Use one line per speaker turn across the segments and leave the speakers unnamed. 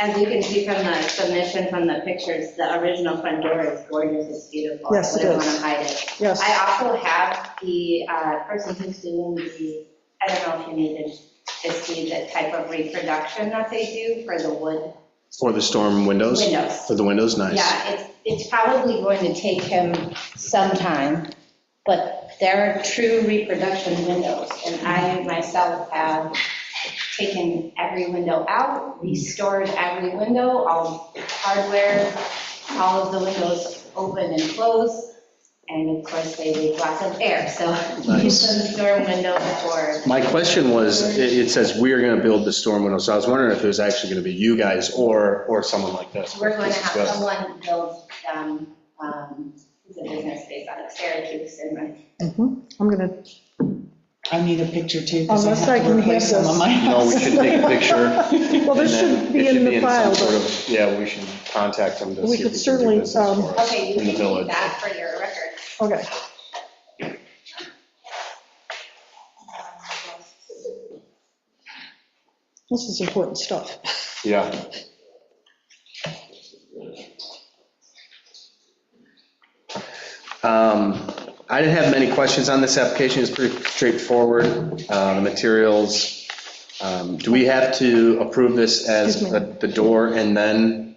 As you can see from the submission, from the pictures, the original front door is gorgeous, it's beautiful.
Yes, it
I wouldn't
is.
want to hide it.
Yes.
I also have the uh, person who's doing the, I don't know if you needed to see the type of reproduction that they do for the wood
For the storm windows?
windows.
For the windows, nice.
Yeah, it's, it's probably going to take him some time, but they're true reproduction windows. And I myself have taken every window out, restored every window, all hardware, all of the windows open and closed. And of course, they leak lots of air, so use
Nice.
some storm window before.
My question was, it it says we are going to build the storm windows, so I was wondering if it was actually going to be you guys or, or someone like this.
We're going to have
Well,
someone build, um, um, it's a business space out of Syracuse and run
Mhm. I'm gonna,
I need a picture too, because I
Unless I
have to
can
replace
have
some of
this.
my
No,
house.
Oh, we should take a picture.
well,
and
this
then
should be
it
in the
some
file.
sort of- Yeah, we should contact them to
We
see
could
if we can
certainly,
do business
um,
for us
Okay, you
in the
can keep
village.
that for your record.
Okay, this is important stuff.
Yeah, Um, I didn't have many questions on this application, it's pretty straightforward, uh, the materials. Um, Do we have to approve this as
Excuse me.
the the door and then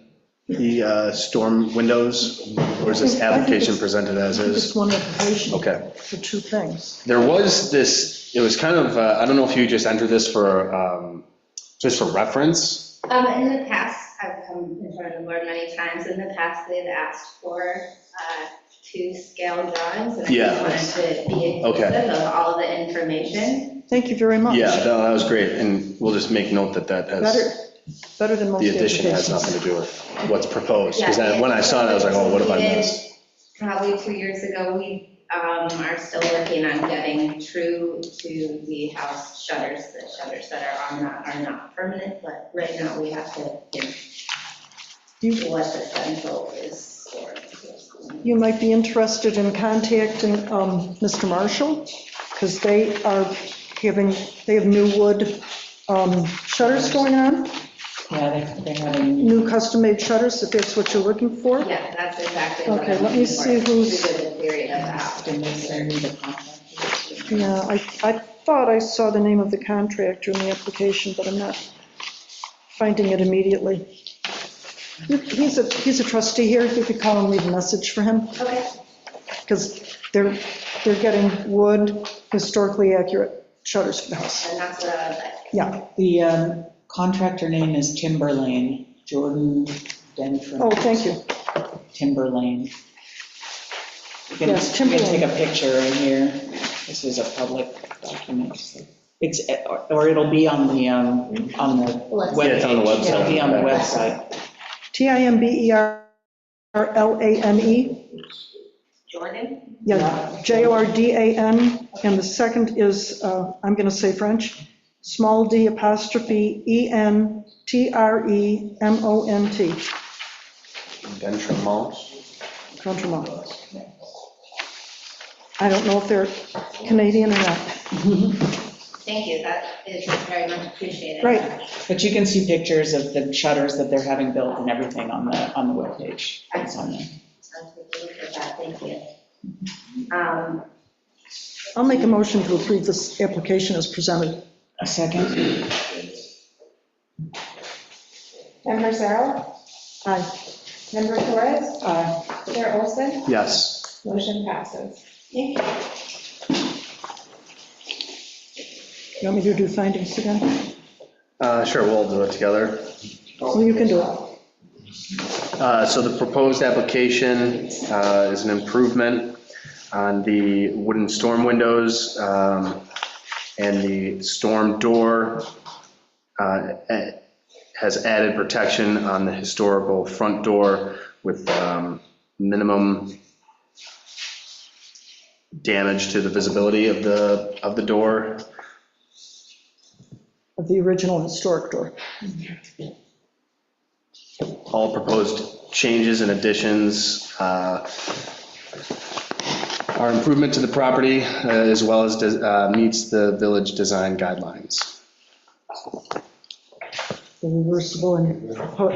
the uh, storm windows? Or is this
I think
application
it's-
presented as
Just
is?
one application
Okay.
for two things.
There was this, it was kind of, uh, I don't know if you just entered this for, um, just for reference?
Um, in the past, I've come in front of the board many times, in the past, they've asked for, uh, two scale drawings, and I
Yeah.
just wanted to be
Okay.
inclusive of all the information.
Thank you very much.
Yeah, no, that was great, and we'll just make note that that has.
Better, better than most
the addition has
applications.
nothing to do with what's proposed, because
Yeah.
when I saw it, I was like, oh, what have I missed?
Probably two years ago, we, um, are still working on getting true to the house shutters, the shutters that are on that are not permanent, but right now, we have to, you know, what the central is for.
You might be interested in contacting um, Mr. Marshall, because they are giving, they have new wood um, shutters going on,
Yeah, they- they have a-
new custom-made shutters, if that's what you're looking for.
Yeah, that's exactly what I'm
Okay, let me
looking
see
for.
who's-
Who did the theory of that?
they need the contract.
Yeah, I, I thought I saw the name of the contractor in the application, but I'm not finding it immediately. He's a, he's a trustee here, you could call and leave a message for him,
Okay,
because they're, they're getting wood historically accurate shutters for the house.
and that's what I was like.
Yeah,
The um, contractor name is Timberlane, Jordan Denford.
oh, thank you.
Timberlane. You can-
Yes,
You can
Timberlane.
take a picture in here. This is a public document. so It's, or it'll be on the, um, on the webpage.
Yeah, it's on the website.
It'll be on the
E
website.
T-I-M-B-E-R-L-A-N-E, E.
Jordan?
yeah, J-O-R-D-A-N, and the second is, uh, I'm going to say French, small d apostrophe E E-N-T-R-E-M-O-N-T,
Dentremont?
Contremont. I don't know if they're Canadian or not.
Thank you, that is very much appreciated.
Right.
But you can see pictures of the shutters that they're having built and everything on the, on the webpage. It's on there.
I'll take a look at that, thank you. Um,
I'll make a motion to approve this application as presented.
A second?
Member Cyril?
Aye.
Member Torres?
Uh,
Chair Olson?
Yes.
Motion passes.
thank you.
You want me to do findings again?
Uh, Sure, we'll do it together.
Well, you can do it.
Uh, So the proposed application uh, is an improvement on the wooden storm windows um, and the storm door uh, eh, has added protection on the historical front door with um, minimum damage to the visibility of the, of the door.
Of the original historic door.
All proposed changes and additions uh, are improvement to the property uh, as well as uh, meets the village design guidelines.
the reversible and